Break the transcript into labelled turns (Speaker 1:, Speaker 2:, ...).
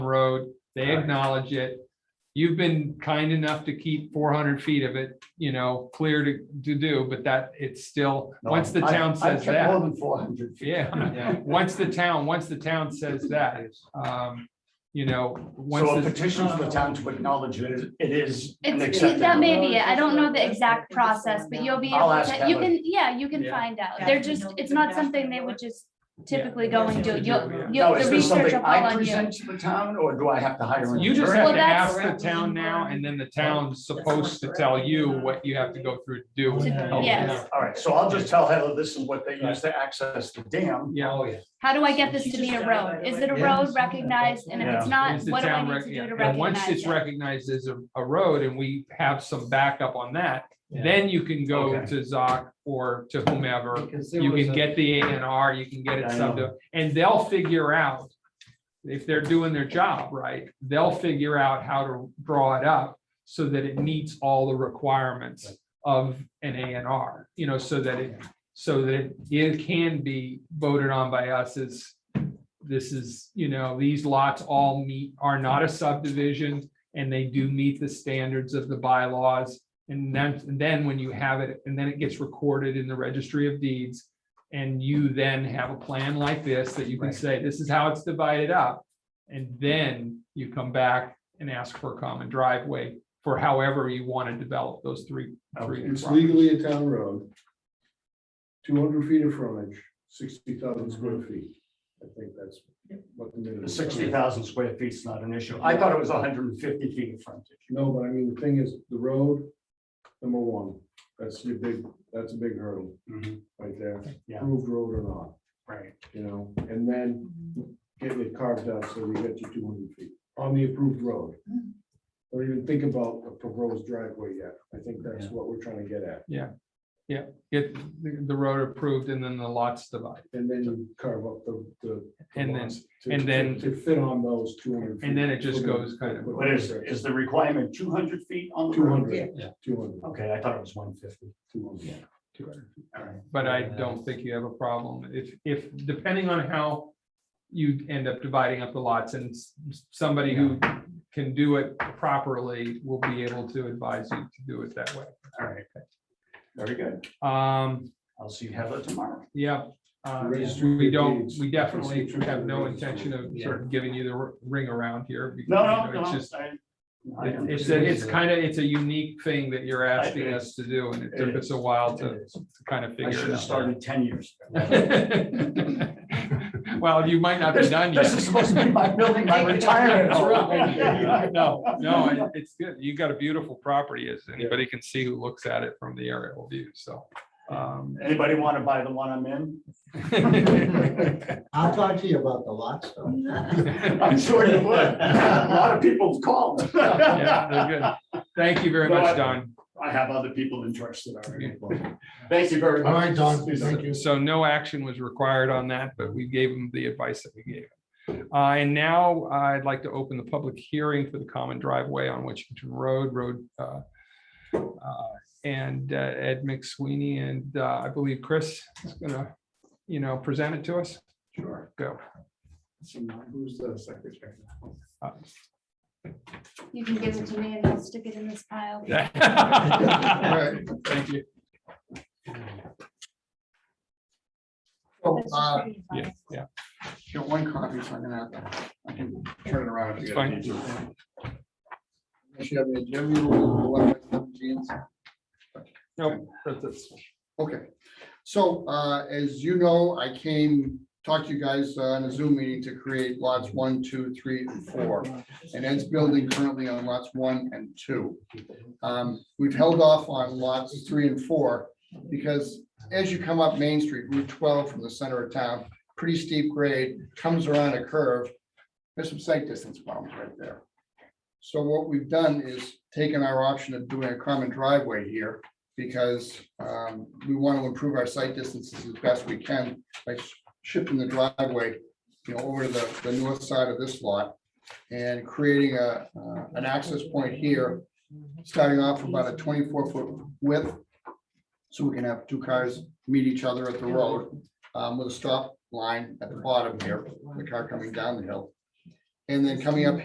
Speaker 1: road, they acknowledge it. You've been kind enough to keep four hundred feet of it, you know, clear to, to do, but that, it's still,
Speaker 2: No,
Speaker 1: once the
Speaker 2: I-
Speaker 1: town
Speaker 2: I
Speaker 1: says
Speaker 2: kept More
Speaker 1: that,
Speaker 2: than four hundred feet.
Speaker 1: yeah.
Speaker 3: Yeah.
Speaker 1: Once the town, once the town says that, um, you know, once.
Speaker 2: So a
Speaker 1: the-
Speaker 2: petition for the town to acknowledge it is, it is an
Speaker 4: It's,
Speaker 2: accepted.
Speaker 4: that may
Speaker 2: road.
Speaker 4: be it. I don't know the exact process, but you'll be
Speaker 2: I'll
Speaker 4: able
Speaker 2: ask
Speaker 4: to, you
Speaker 2: Helen.
Speaker 4: can, yeah, you can
Speaker 3: Yeah.
Speaker 4: find out.
Speaker 5: Yeah.
Speaker 4: They're just,
Speaker 5: Nope.
Speaker 4: it's not something they would just typically go and do. You'll,
Speaker 1: Yeah.
Speaker 2: Now,
Speaker 4: you'll,
Speaker 2: is
Speaker 4: the
Speaker 2: this
Speaker 4: research
Speaker 2: something
Speaker 4: will fall
Speaker 2: I
Speaker 4: on
Speaker 2: present
Speaker 4: you.
Speaker 2: to the town or do I have to hire? an
Speaker 1: You just
Speaker 2: attorney?
Speaker 1: have
Speaker 4: Well,
Speaker 1: to
Speaker 4: that's-
Speaker 1: ask the town now, and then the town's
Speaker 5: That's
Speaker 1: supposed to tell you what you have to go through to do.
Speaker 4: To-
Speaker 1: Oh,
Speaker 4: yes.
Speaker 2: All right, so I'll just tell Heather this is what they use to access the dam.
Speaker 1: Yeah,
Speaker 3: Oh, yeah.
Speaker 4: How do I get this
Speaker 5: She
Speaker 4: to be
Speaker 5: just
Speaker 4: a
Speaker 5: died, by
Speaker 4: road?
Speaker 5: the
Speaker 4: Is
Speaker 5: way.
Speaker 4: it a
Speaker 3: Yeah.
Speaker 4: road recognized? And if it's not,
Speaker 1: Is the
Speaker 4: what do
Speaker 1: town
Speaker 4: I need
Speaker 1: rec-
Speaker 4: to do to
Speaker 1: And once
Speaker 4: recognize
Speaker 1: it's
Speaker 4: it?
Speaker 1: recognized as a, a road and we have some backup on that, then you can go
Speaker 2: Okay.
Speaker 1: to Zoc or to whomever.
Speaker 3: Because there
Speaker 1: You
Speaker 3: was
Speaker 1: can
Speaker 3: a-
Speaker 1: get the A and R, you can get it
Speaker 2: I
Speaker 1: subbed,
Speaker 2: know.
Speaker 1: out, and they'll figure out. If they're doing their job right, they'll figure out how to draw it up so that it meets all the requirements of an A and R. You know, so that it, so that it can be voted on by us as this is, you know, these lots all meet, are not a subdivision, and they do meet the standards of the bylaws. And then, and then when you have it, and then it gets recorded in the registry of deeds, and you then have a plan like this that you can
Speaker 2: Right.
Speaker 1: say, this is how it's divided up. And then you come back and ask for a common driveway for however you want to develop those three. three
Speaker 6: It's
Speaker 1: properties.
Speaker 6: legally a town road. Two hundred feet of frontage, sixty thousand square feet. I think that's what the minimum. is.
Speaker 2: Sixty thousand square feet is not an issue. I thought it was hundred and fifty feet of frontage.
Speaker 6: No, but I mean, the thing is, the road, number one, that's your big, that's a big hurdle
Speaker 1: Mm-hmm.
Speaker 6: right there.
Speaker 2: Yeah.
Speaker 6: Approved road or not,
Speaker 2: Right.
Speaker 6: you know, and then getting it carved out so we get you two hundred feet on the approved road.
Speaker 4: Hmm.
Speaker 6: Or even think about a proposed driveway yet. I think that's what we're trying to get at.
Speaker 1: Get the the road approved and then the lots divided.
Speaker 6: And then you carve up the, the. the
Speaker 1: And then-
Speaker 6: lots to-
Speaker 1: and then-
Speaker 6: To fit on those two hundred.
Speaker 1: And then it just goes kind of-
Speaker 2: What is, is the requirement two hundred feet on the
Speaker 6: Two
Speaker 2: road?
Speaker 6: hundred.
Speaker 1: Yeah.
Speaker 6: Two hundred.
Speaker 2: Okay, I thought it was one fifty.
Speaker 1: to it.
Speaker 2: All right.
Speaker 1: But I don't think you have a problem. If, if, depending on how you end up dividing up the lots and s- somebody who can do it properly will be able to advise you to do it that way.
Speaker 2: All right. Very good.
Speaker 1: Um,
Speaker 2: I'll see Heather tomorrow.
Speaker 1: yeah. uh,
Speaker 6: Registry
Speaker 1: We
Speaker 6: of
Speaker 1: don't,
Speaker 6: deeds.
Speaker 1: we definitely
Speaker 6: Registry of
Speaker 1: have no
Speaker 6: deeds.
Speaker 1: intention of
Speaker 3: Yeah.
Speaker 1: sort of giving you the r- ring around here. because,
Speaker 2: No,
Speaker 1: you
Speaker 2: no,
Speaker 1: know,
Speaker 2: no.
Speaker 1: It's just,
Speaker 2: I-
Speaker 1: it-
Speaker 2: I
Speaker 1: it's,
Speaker 2: understand.
Speaker 1: a- it's kind of, it's a unique thing that you're asking us to do and it
Speaker 2: It
Speaker 1: took us
Speaker 2: is.
Speaker 1: a while
Speaker 2: It
Speaker 1: to
Speaker 2: is.
Speaker 1: kind of
Speaker 2: I should
Speaker 1: figure
Speaker 2: have
Speaker 1: it out.
Speaker 2: started ten years. ago.
Speaker 1: Well, you might not be
Speaker 2: This-
Speaker 1: done
Speaker 2: This is
Speaker 1: yet.
Speaker 2: supposed to be my building, my retirement.
Speaker 1: That's
Speaker 2: home.
Speaker 1: right. No, no, it- it's good. You've got a beautiful property, as anybody can see who looks at it from the aerial view, so. um,
Speaker 2: Anybody want to buy the one I'm in?
Speaker 7: I'll talk to you about the lot stuff.
Speaker 2: I'm sure you would. A lot of people have called.
Speaker 1: yeah,
Speaker 2: I
Speaker 1: they're good. Thank you very
Speaker 2: No, I-
Speaker 1: much, Don.
Speaker 2: have other people interested already. Thank you very much.
Speaker 7: All right, Don, thank you.
Speaker 1: So no action was required on that, but we gave them the advice that we gave. him. Uh, And now I'd like to open the public hearing for the common driveway on Washington Road, Road. uh, uh, And uh, Ed McSweeney and uh, I believe Chris is gonna, you know, present it to us.
Speaker 2: Sure.
Speaker 1: Go.
Speaker 2: So now Who's the secretary?
Speaker 4: You can give it to me and I'll stick it in this pile.
Speaker 1: Right, Thank you.
Speaker 7: Oh,
Speaker 4: That's
Speaker 7: uh,
Speaker 4: just pretty
Speaker 1: Yeah,
Speaker 4: fun.
Speaker 1: yeah,
Speaker 2: Your one copy, so I'm gonna have to, I can turn it around. if
Speaker 1: It's
Speaker 2: you
Speaker 1: fine.
Speaker 2: need to.
Speaker 7: unless you have any agenda, you want to have Jean's?
Speaker 1: Nope, that's it.
Speaker 7: Okay, so uh, as you know, I came, talked to you guys uh, on a Zoom meeting to create lots one, two, three, and four. And Ed's building currently on lots one and two. Um, We've held off on lots three and four because as you come up Main Street, Route twelve from the center of town, pretty steep grade, comes around a curve. There's some sight distance problems right there. So what we've done is taken our option of doing a common driveway here because um, we want to improve our site distances as best we can by sh- shifting the driveway, you know, over to the, the north side of this lot and creating a, uh, an access point here, starting off about a twenty-four foot width. So we can have two cars meet each other at the road um, with a stop line at the bottom here, the car coming down the hill. And then coming up